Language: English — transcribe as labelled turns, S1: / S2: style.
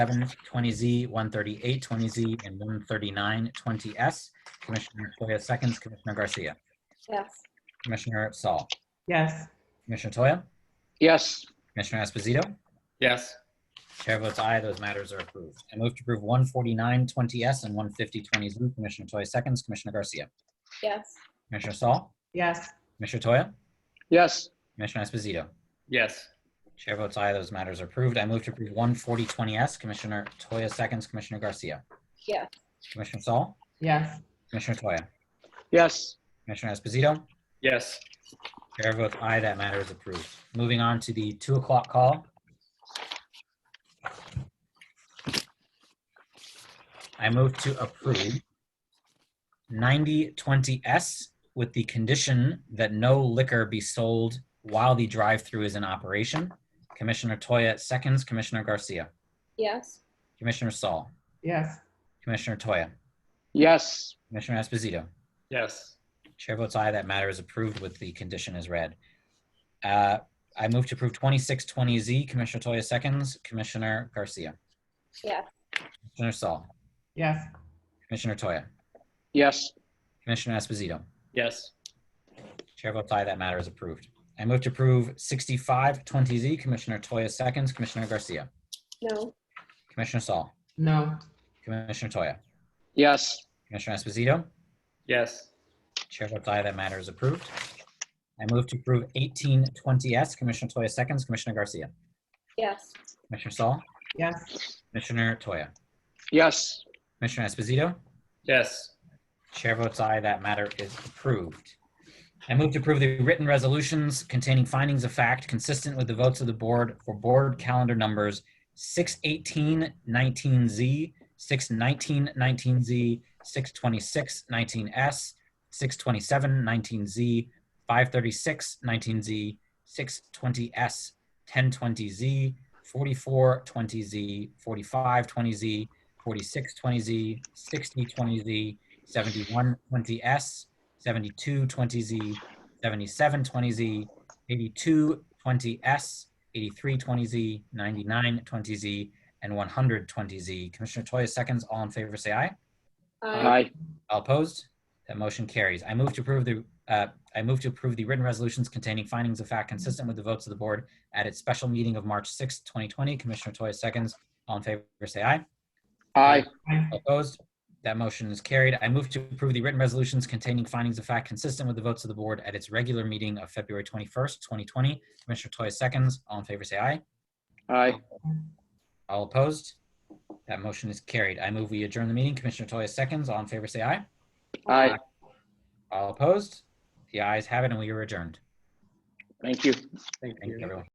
S1: 20Z, 13820Z, and 13920S. Commissioner Toya seconds, Commissioner Garcia.
S2: Yes.
S1: Commissioner Saul.
S3: yes,
S1: Commissioner Toya.
S4: Yes.
S1: Commissioner Esposito.
S4: Yes.
S1: Chair votes aye, those matters are approved. I move to approve 14920S and 15020Z. Commissioner Toya seconds, Commissioner Garcia.
S2: Yes.
S1: Commissioner Saul.
S3: yes,
S1: Commissioner Toya.
S4: Yes.
S1: Commissioner Esposito.
S4: Yes.
S1: Chair votes aye, those matters are approved. I move to approve 14020S. Commissioner Toya seconds, Commissioner Garcia.
S2: Yes.
S1: Commissioner Saul.
S3: yes,
S1: Commissioner Toya.
S4: Yes.
S1: Commissioner Esposito.
S4: Yes.
S1: Chair votes aye, that matter is approved. Moving on to the two o'clock call. I move to approve 9020S with the condition that no liquor be sold while the drive-through is in operation. Commissioner Toya seconds, Commissioner Garcia,
S2: Yes.
S1: Commissioner Saul,
S3: yes,
S1: Commissioner Toya,
S4: Yes.
S1: Commissioner Esposito.
S4: Yes.
S1: Chair votes aye, that matter is approved with the condition as read. Uh, I move to approve 2620Z. Commissioner Toya seconds, Commissioner Garcia.
S2: Yes.
S1: Commissioner Saul,
S3: yes,
S1: Commissioner Toya,
S4: Yes.
S1: Commissioner Esposito.
S4: Yes.
S1: Chair votes aye, that matter is approved. I move to approve 6520Z. Commissioner Toya seconds, Commissioner Garcia.
S2: No.
S1: Commissioner Saul,
S3: no,
S1: Commissioner Toya,
S4: Yes.
S1: Commissioner Esposito.
S4: Yes.
S1: Chair votes aye, that matter is approved. I move to approve 1820S. Commissioner Toya seconds, Commissioner Garcia.
S2: Yes.
S1: Commissioner Saul,
S3: yes,
S1: Commissioner Toya,
S4: Yes.
S1: Commissioner Esposito.
S4: Yes.
S1: Chair votes aye, that matter is approved. I move to approve the written resolutions containing findings of fact consistent with the votes of the board for board calendar numbers 61819Z, 61919Z, 62619S, 62719Z, 53619Z, 620S, 1020Z, 4420Z, 4520Z, 4620Z, 6020Z, 7120S, 7220Z, 7720Z, 8220S, 8320Z, 9920Z, and 120Z. Commissioner Toya seconds. All in favor, say aye.
S2: I.
S1: All opposed? That motion carries. I move to approve the, uh, I move to approve the written resolutions containing findings of fact consistent with the votes of the board at its special meeting of March 6, 2020. Commissioner Toya seconds. All in favor, say aye.
S4: Aye.
S1: Opposed? That motion is carried. I move to approve the written resolutions containing findings of fact consistent with the votes of the board at its regular meeting of February 21st, 2020. Commissioner Toya seconds. All in favor, say aye.
S4: Aye.
S1: All opposed? That motion is carried. I move we adjourn the meeting. Commissioner Toya seconds. All in favor, say aye.
S4: Aye.
S1: All opposed? The ayes have it, and we are adjourned.
S4: Thank you.
S1: Thank you, everyone.